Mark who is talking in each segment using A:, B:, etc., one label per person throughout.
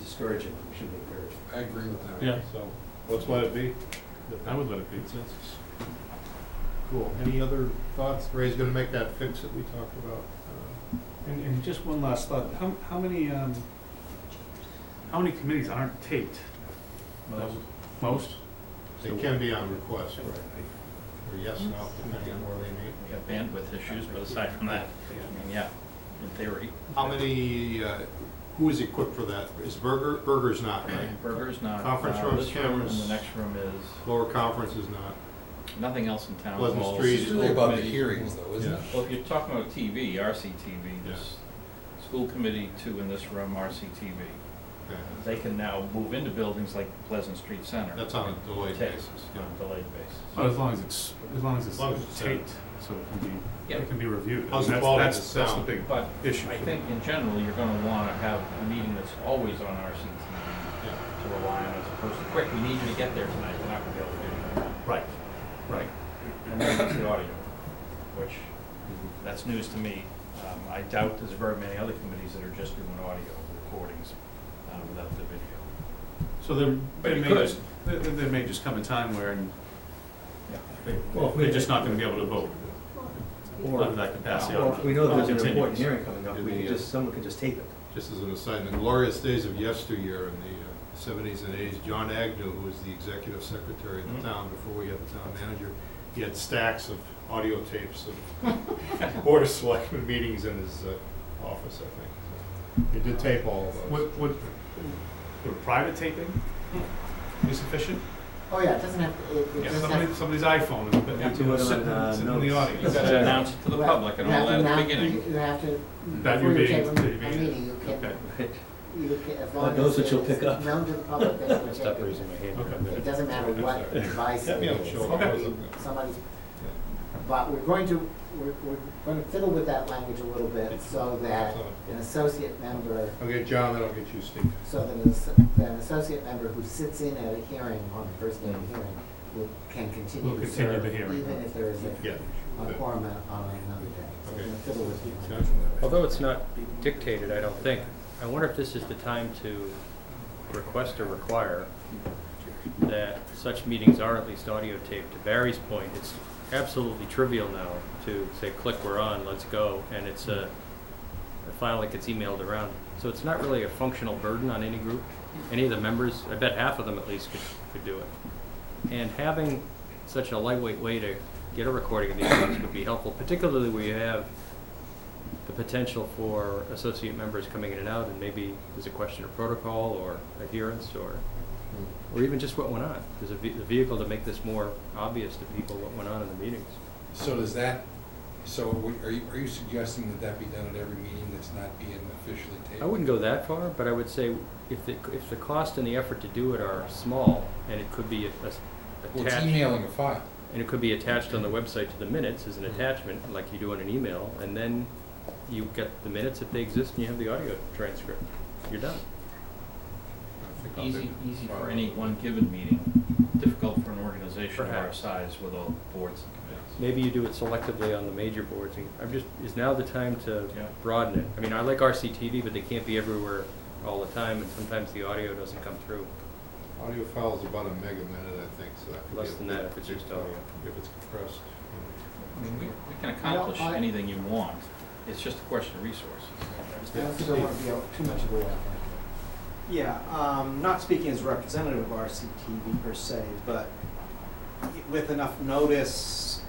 A: discourage it, we should encourage it.
B: I agree with that.
C: Yeah.
B: So,
D: Let's let it be.
C: I would let it be.
D: Consensus. Cool. Any other thoughts? Ray's gonna make that fix that we talked about. uh,
C: And, and just one last thought, how, how many, um, how many committees aren't taped?
A: Most.
C: Most?
D: It can be on request,
A: Right.
D: right? Or yes, no, depending on where they meet.
E: We have bandwidth issues, but aside from that, I mean, yeah, in theory,
D: How many, uh, who is equipped for that? Is Burger, Burger's not, right?
E: burgers not.
D: Conference
E: uh,
D: rooms,
E: this room
D: cameras.
E: And the next room is,
D: Lower Conference is not.
E: nothing else in town.
D: Pleasant
E: Well,
D: Street.
B: it's really about the hearings though, isn't it?
E: Well,
F: Oh,
E: if you're talking about TV, RCTV, this school committee, two in this room, RCTV.
D: Okay.
E: They can now move into buildings like Pleasant Street Center.
D: That's on a delayed
E: Taped,
D: basis, yeah.
E: On a delayed basis.
C: Well, as long as it's, as long as
D: As long as
C: it's
D: it's
C: taped, so it can be,
E: Yeah.
C: it can be reviewed. I
D: How's
C: mean,
D: the
C: that's-
D: quality of
C: that's-
D: the sound?
C: That's the
E: But
C: big issue.
E: I think in general, you're gonna wanna have a meeting that's always on RCTV
D: Yeah.
E: to rely on as opposed to, quick, we need you to get there tonight, we're not gonna be able to do that.
C: Right, right.
E: And then there's the audio, which, that's news to me. Um, I doubt there's very many other committees that are just doing audio recordings uh, without the video.
C: So there,
E: But
C: there
E: it
C: may
E: could.
C: just, there, there may just come a time where
A: Well, if we-
C: they're just not gonna be able to vote under that capacity. I don't
A: Well, if we know
C: It'll
A: there's an
C: continue.
A: important hearing coming up, we
D: Yeah.
A: can just, someone can just tape it.
D: Just as an aside, in the glorious days of yesteryear in the uh, seventies and eighties, John Agnew, who was the executive secretary of
E: Mhm.
D: the town before we had the town manager, he had stacks of audio tapes of Board of Selectmen meetings in his uh, office, I think. He did tape all of those.
C: Would, would, would private taping be sufficient?
F: Oh, yeah, it doesn't have, to- it, it
C: Yeah,
F: doesn't
C: somebody,
F: have.
C: somebody's iPhone is
E: Yeah.
C: sitting
A: Do it on, uh,
C: sitting in the
A: notes.
E: You
C: audience.
E: gotta announce it to the
F: Right.
E: public and
F: You
E: all
F: have to
E: that at the
F: announce-
E: beginning.
F: You you have to,
C: That
F: before
C: you're
F: you
C: being,
F: take a
C: that you're
F: a
C: being-
F: meeting, you
C: okay,
F: can, you can, as long as.
A: knows what you'll
F: it's
A: pick up.
F: Known to the public that you
E: Stop
F: taped
E: raising my hand.
C: okay.
F: It doesn't matter what device
D: Yeah,
F: it
D: yeah,
F: is.
D: sure.
F: I mean, Somebody's, but we're going to, we're, we're going to fiddle with that language a little bit so that an associate member,
D: I'll get John, then I'll get you, Steve.
F: so that an, asso- that an associate member who sits in at a hearing on the first day of the hearing will, can continue
C: Will
F: to
C: continue
F: serve
C: the hearing.
F: even if there is a,
D: Yeah.
F: a quorum on on another day. So we're
D: Okay.
F: going to fiddle with the language.
G: Although it's not dictated, I don't think, I wonder if this is the time to request or require that such meetings are at least audio taped. To Barry's point, it's absolutely trivial now to say, click, we're on, let's go, and it's a, a file that gets emailed around. So it's not really a functional burden on any group, any of the members, I bet half of them at least could, could do it. And having such a lightweight way to get a recording of these things would be helpful, particularly where you have the potential for associate members coming in and out, and maybe there's a question of protocol or adherence or, or even just what went on. There's a, ve- a vehicle to make this more obvious to people what went on in the meetings.
B: So does that, so are we- are you, are you suggesting that that be done at every meeting that's not being officially taped?
G: I wouldn't go that far, but I would say if the, if the cost and the effort to do it are small, and it could be a- a-
B: Well, it's
G: attached,
B: emailing a file.
G: and it could be attached on the website to the minutes as an attachment, like you do in an email, and then you get the minutes if they exist, and you have the audio transcript. You're done.
D: I think I'll
E: Easy,
D: do-
E: easy for any one given meeting, difficult for an organization of our
G: Perhaps.
E: size with all boards and
G: Maybe you do it selectively on the major boards, and I'm just, is now the time to
E: Yeah.
G: broaden it? I mean, I like RCTV, but they can't be everywhere all the time, and sometimes the audio doesn't come through.
D: Audio file is about a mega minute, I think, so that could be.
G: Less
D: a
G: than
D: big-
G: that if it's
D: big
G: just audio.
D: file, If it's compressed. you
E: committees. I mean, we, we can
F: I don't-
E: accomplish
F: I-
E: anything you want, it's just a question of resources.
F: I also don't want to be a- too much of a wet
H: Yeah, um, not speaking as representative of RCTV per se, but with enough notice,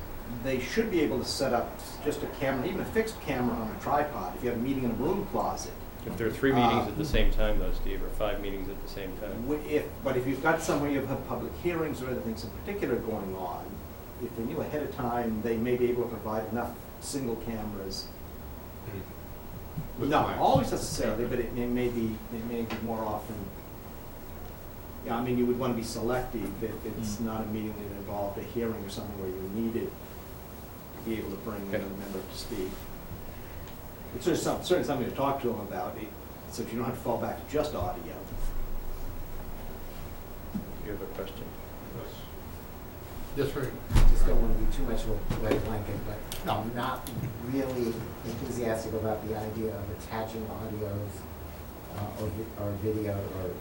H: they should be able to set up just a camera, even a fixed camera on a tripod, if you have a meeting in a room closet.
G: If there are three meetings at the same time though, Steve, or five meetings at the same time.
H: Wh- If, but if you've got somewhere you have public hearings or other things in particular going on, if they knew ahead of time, they may be able to provide enough single cameras.
D: know. With
H: Not
D: mics.
H: always necessarily, but it may, may be, it may be more often. Yeah, I mean, you would wanna be selective if it's
E: Mm.
H: not a meeting that involved a hearing or something where you needed to be able to bring another member to speak. It's certainly some, certainly something to talk to them about, it- so that you don't have to fall back to just audio.
G: Do you have a question?
D: Yes. Yes, Rick.
F: Just don't want to be too much of a wet blanket, but I'm not really enthusiastic about the idea of attaching audios
H: uh, or, vi- or video or